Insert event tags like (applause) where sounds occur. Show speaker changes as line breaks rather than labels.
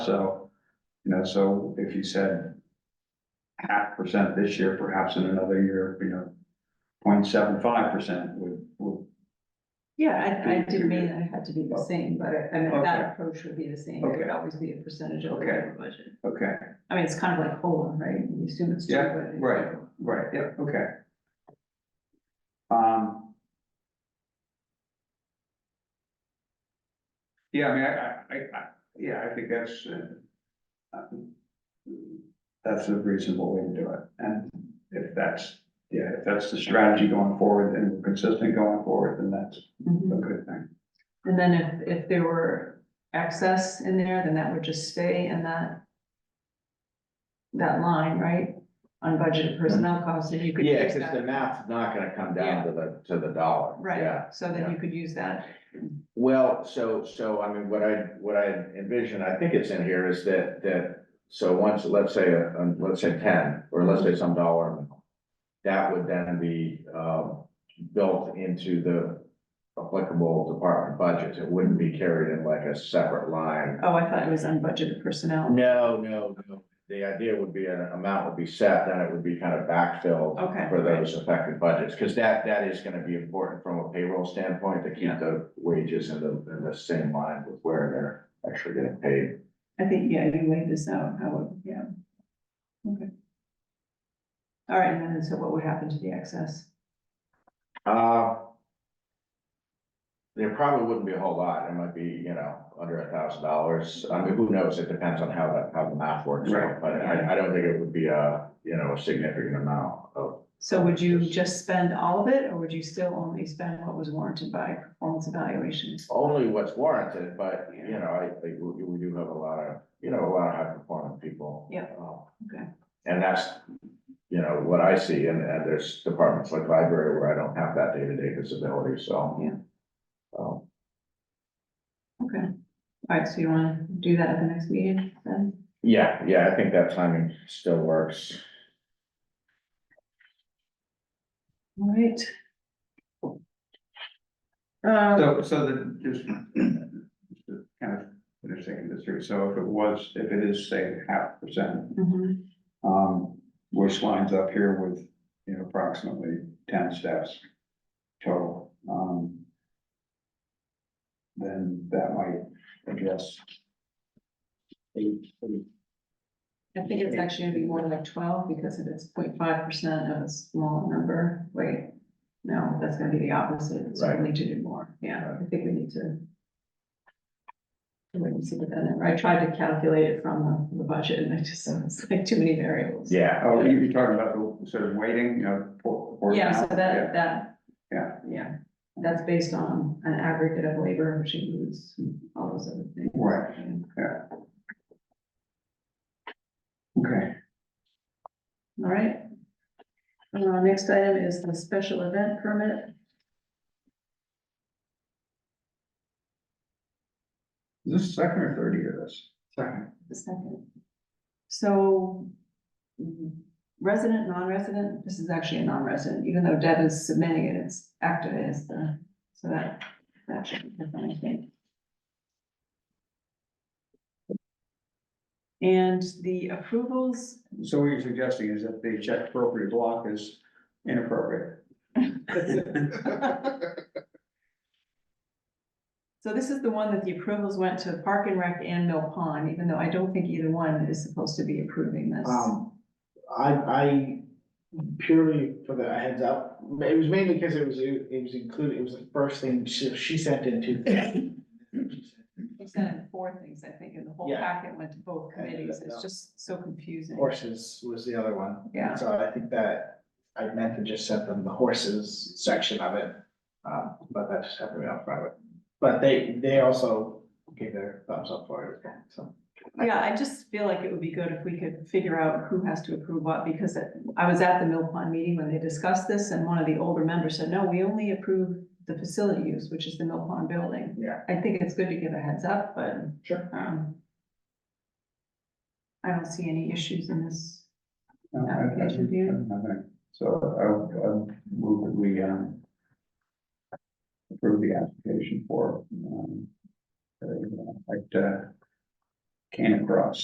So, you know, so if you said half percent this year, perhaps in another year, you know, 0.75 percent would, would,
Yeah, I, I didn't mean that it had to be the same, but I mean,
Okay.
that approach would be the same. It
Okay.
would always be a percentage of the
Okay.
overall budget.
okay,
I mean, it's kind of like COLA, right? You assume it's. two,
Yeah,
but it-
right. right, yeah, okay. Um. Yeah, I mean, I, I, I- I, yeah, I think that's, uh, um, that's a reasonable way to do it. And if that's, yeah, if that's the strategy going forward and we're consistent going forward, then that's a
Mhm.
good thing.
And then if, if there were excess in there, then that would just stay in that that line, right? Unbudgeted personnel costs, and you could
Yeah,
use
because the
that.
math's not gonna come down to the, to the dollar. Yeah.
Right, so then you could use that.
Well, so, so, I mean, what I, what I envision, I think it's in here is that, that, so once, let's say, uh, um, let's say ten, or let's say some dollar. amount, That would then be, um, built into the applicable department budgets. It wouldn't be carried in like a separate line.
Oh, I thought it was unbudgeted personnel.
No, no, no. The idea would be an amount would be set, then it would be kind of backfilled.
Okay.
for those affected budgets, because that, that is gonna be important from a payroll standpoint, to keep the wages in the, in the same line with where they're actually getting paid.
I think, yeah, you laid this out, how, would- yeah. Okay. All right, and then so what would happen to the excess?
Uh, there probably wouldn't be a whole lot, it might be, you know, under a thousand dollars, I mean, who knows, it depends on how that, how the math works
Right.
out, but I, I don't think it would be a, you know, a significant amount of.
So would you just spend all of it, or would you still only spend what was warranted by performance evaluations?
Only what's warranted, but, you know, I, I, we, we do have a lot of, you know, a lot of high performing people.
Yeah.
Uh,
Okay,
And that's, you know, what I see, and, and there's departments like library where I don't have that day-to-day visibility, so.
Yeah.
Um,
okay. All right, so you wanna do that at the next meeting then?
yeah, yeah, I think that timing still works.
All right. Um,
So, so the, just, just to kind of, finish thinking this through, so if it was, if it is, say, half percent,
mhm,
um, which lines up here with, you know, approximately ten steps total, um, then that might address eight, eight,
I think it's actually gonna be more like twelve, because if it's 0.5 percent of a small number, wait. No, that's gonna be the opposite, so we need to do more, yeah, I think we need to. Wait and see what that, I tried to calculate it from the, the budget, and I just, (laughs) it's like too many variables.
Yeah.
oh, you- you're talking about the sort of weighting, you know, for, for.
Yeah, so that,
Yeah,
that.
Yeah.
Yeah, that's based on an aggregate of labor, which includes all those other things.
Right. Okay,
All right. Uh, next item is the special event permit.
is this second or third year of this? Second.
the second. So mm, resident, non-resident, this is actually a non-resident, even though Deb is submitting it, it's active as the, so that, that should be different, I think. And the approvals,
So what you're suggesting is that the check appropriate block is inappropriate.
so this is the one that the approvals went to Park and Rec and Mill Pond, even though I don't think either one is supposed to be approving this.
Um, I, I purely for the heads up, it was mainly because it was, it was included, it was the first thing she, she sent into.
They sent in four things, I think, and the whole
Yeah.
packet went to both
I did
committees, it's
that.
just so confusing.
Horses was the other one.
Yeah.
So I think that I meant to just send them the horses section of it, uh, but that just happened to be off private. But they, they also gave their thumbs up for it, so.
Yeah, I just feel like it would be good if we could figure out who has to approve what, because it- I was at the Mill Pond meeting when they discussed this, and one of the older members said, no, we only approve the facility use, which is the Mill Pond building.
Yeah.
I think it's good to give a heads up, but,
Sure.
um, I don't see any issues in this.
No, I- I don't- I
Application view.
don't have any. So I'll, I'll move that we, um, approve the application for, um, uh, like, uh, came across.